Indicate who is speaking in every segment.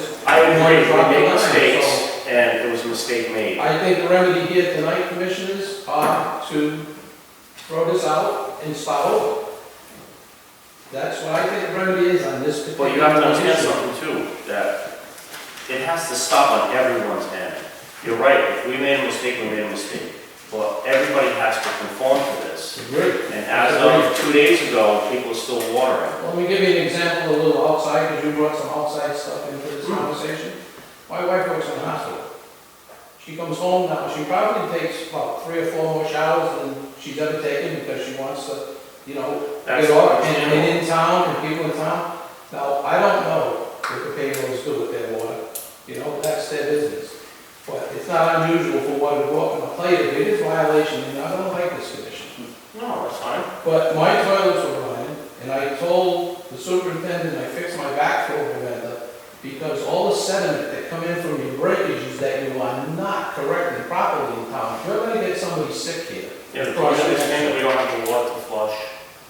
Speaker 1: agree, we make mistakes, and it was a mistake made.
Speaker 2: I think the remedy here tonight, commissioners, are to throw this out and start over. That's what I think the remedy is on this particular
Speaker 1: But
Speaker 2: issue.
Speaker 1: you have to understand something too, that it has to stop on everyone's end. You're right, if we made a mistake, we made a mistake, but everybody has to conform to this.
Speaker 2: Agree.
Speaker 1: And as of two days ago, people are still watering.
Speaker 2: Let me give you an example, a little outside, because you brought some outside stuff into this
Speaker 1: Hmm.
Speaker 2: conversation. My wife works in a hospital. She comes home now, she probably takes about three or four more showers than she's ever taken, because she wants to, you know,
Speaker 1: That's
Speaker 2: They are, and, and in town, and people in town. Now, I don't know what the payrolls do with their water, you know, that's their business. But it's not unusual for water to go up on a plate, if it is violation, and I don't like this condition.
Speaker 1: No, that's fine.
Speaker 2: But my toilets were running, and I told the superintendent, I fixed my backflow preventer, because all the sediment that come in from your breakages that you are not correcting properly in town, you're gonna get somebody sick here.
Speaker 1: Yeah, but do you understand that we don't have the water to flush?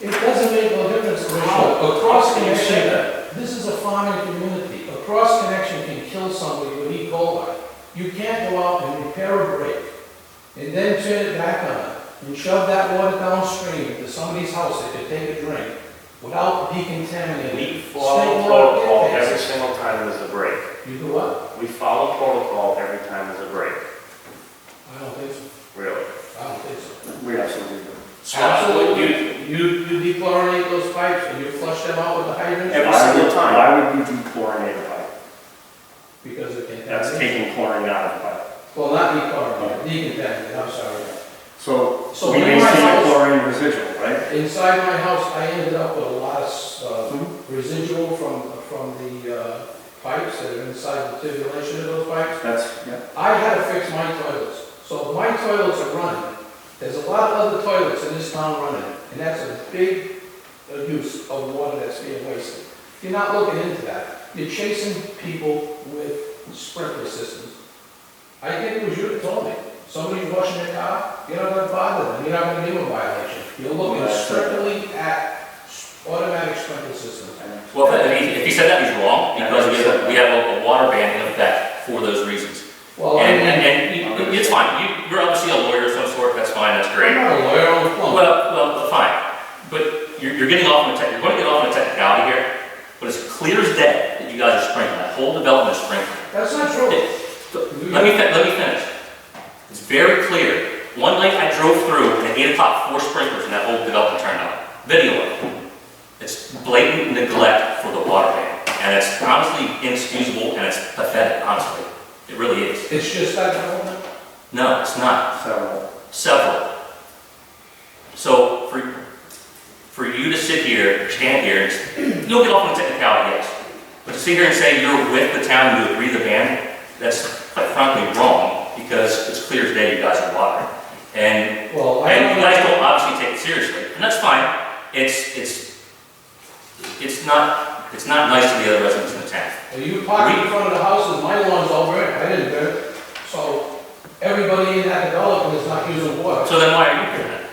Speaker 2: It doesn't make no difference how, across
Speaker 1: How
Speaker 2: the
Speaker 1: can you say
Speaker 2: nation,
Speaker 1: that?
Speaker 2: This is a farming community. A cross connection can kill somebody with E. coli. You can't go out and repair a break and then turn it back on and shove that water downstream to somebody's house that could take a drink without decontaminating.
Speaker 1: We follow
Speaker 2: State law
Speaker 1: protocol
Speaker 2: dictates.
Speaker 1: every single time there's a break.
Speaker 2: You do what?
Speaker 1: We follow protocol every time there's a break,
Speaker 2: I don't think so.
Speaker 1: really.
Speaker 2: I don't think so.
Speaker 1: We absolutely do.
Speaker 2: Absolutely. You, you dechlorinate those pipes and you flush them out with a hydrant
Speaker 1: Every single time.
Speaker 3: Why would you dechlorinate a pipe?
Speaker 2: because of contamination.
Speaker 3: That's taking chlorine out of the pipe.
Speaker 2: Well, not dechlorinate, decontaminate, I'm sorry.
Speaker 3: So
Speaker 2: So
Speaker 3: we
Speaker 2: in my
Speaker 3: maintain
Speaker 2: house-
Speaker 3: chlorine residual, right?
Speaker 2: Inside my house, I ended up with a lot of
Speaker 3: Mhm.
Speaker 2: uh, residual from, from the uh, pipes that are inside the tubulation of those pipes.
Speaker 3: That's, yeah.
Speaker 2: I had to fix my toilets, so my toilets are running. There's a lot of other toilets in this town running, and that's a big uh, use of water that's being wasted. You're not looking into that. You're chasing people with sprinkler systems. I think it was you that told me, somebody's washing their car, you're not gonna bother them, you're not gonna give them a violation. You're looking strictly at automatic sprinkler systems.
Speaker 4: Well, if he, if he said that, he's wrong, because we have, we have a- a water ban in effect for those reasons.
Speaker 2: Well, I
Speaker 4: And, and,
Speaker 2: mean,
Speaker 4: and you- it's fine, you, you're obviously a lawyer of some sort, that's fine, that's
Speaker 2: I'm
Speaker 4: great.
Speaker 2: not a lawyer, I'm a
Speaker 4: Well,
Speaker 2: plumber.
Speaker 4: well, fine, but you're, you're getting off on a tech, you're gonna get off on a technicality here, but it's clear as day that you guys are sprinkling, that whole development is sprinkling.
Speaker 2: That's not true.
Speaker 4: Let me, fin- let me finish. It's very clear. One night I drove through and at eight o'clock, four sprinklers in that whole development turned on. Video it. It's blatant neglect for the water main. And it's honestly inexcusable and it's pathetic, honestly. It really is.
Speaker 2: It's just that development.
Speaker 4: No, it's not.
Speaker 3: So,
Speaker 4: Several. So for, for you to sit here, stand here, and s- you'll get off on a technicality, yes. But to sit here and say you're with the town, you agree the ban, that's quite frankly wrong, because it's clear as day you guys are watering. And,
Speaker 2: Well, I
Speaker 4: and you
Speaker 2: don't
Speaker 4: guys
Speaker 2: know.
Speaker 4: don't obviously take it seriously, and that's fine. It's, it's, it's not, it's not nice to the other residents in the town.
Speaker 2: Are you parking in front of the houses, my lawn's all burnt, I didn't burn it. So everybody in that development is not using water.
Speaker 4: So then why are you here then?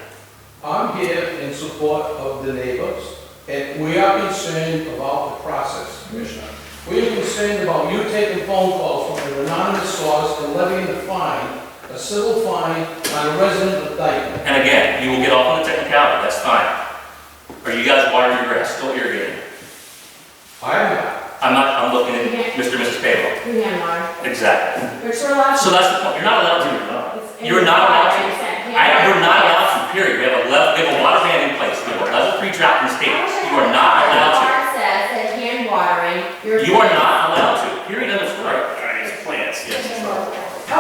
Speaker 2: I'm here in support of the neighbors, and we are concerned about the process, Commissioner. We are concerned about you taking phone calls from an anonymous source and levying a fine, a civil fine on a resident of Dayton.
Speaker 4: And again, you will get off on the technicality, that's fine. Are you guys watering your grass, still irrigating?
Speaker 2: I'm not.
Speaker 4: I'm not, I'm looking at Mr. and Mrs. Payroll.
Speaker 5: Myanmar.
Speaker 4: Exactly.
Speaker 5: Which we're allowed
Speaker 4: So that's the point, you're not allowed to,
Speaker 5: to.
Speaker 4: You're not allowed to. I, you're not
Speaker 5: allowed
Speaker 4: allowed to, period. We have a level, we have a water ban in place, we have a level three drought in the state. You are not allowed
Speaker 5: Law says that hand watering,
Speaker 4: to.
Speaker 5: you're.
Speaker 4: You are not allowed to, period, end of story.
Speaker 1: All right, it's plants, yes.
Speaker 5: Hand watering. Oh,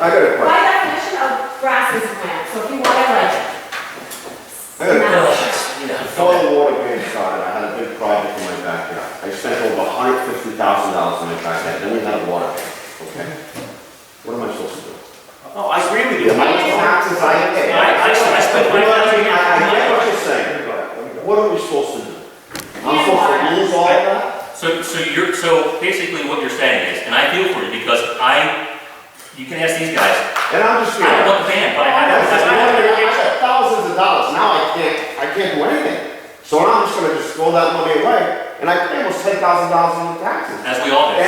Speaker 6: I got a
Speaker 5: by
Speaker 6: question.
Speaker 5: definition of grass is plant, so if you want to like.
Speaker 6: Hey. Before
Speaker 4: Yeah.
Speaker 6: the water ban started, I had a big project in my backyard. I spent over hundred fifty thousand dollars in my backyard, then we had a water ban, okay? What am I supposed to do?
Speaker 1: Oh, I agree with you.
Speaker 6: My taxes I pay.
Speaker 4: I- I- I spent my-
Speaker 6: You know what I mean? I, I get what you're saying. What are we supposed to do? I'm supposed to lose all of that?
Speaker 4: So, so you're, so basically what you're saying is, and I feel for you because I, you can ask these guys,
Speaker 6: And I'm just
Speaker 4: I
Speaker 6: here.
Speaker 4: don't want the ban, but I
Speaker 6: I
Speaker 4: have,
Speaker 6: said,
Speaker 4: that's
Speaker 6: I
Speaker 4: not-
Speaker 6: had- I had thousands of dollars, now I can't, I can't do anything. So now I'm just gonna just throw that money away, and I pay almost ten thousand dollars in taxes.
Speaker 4: as we all do.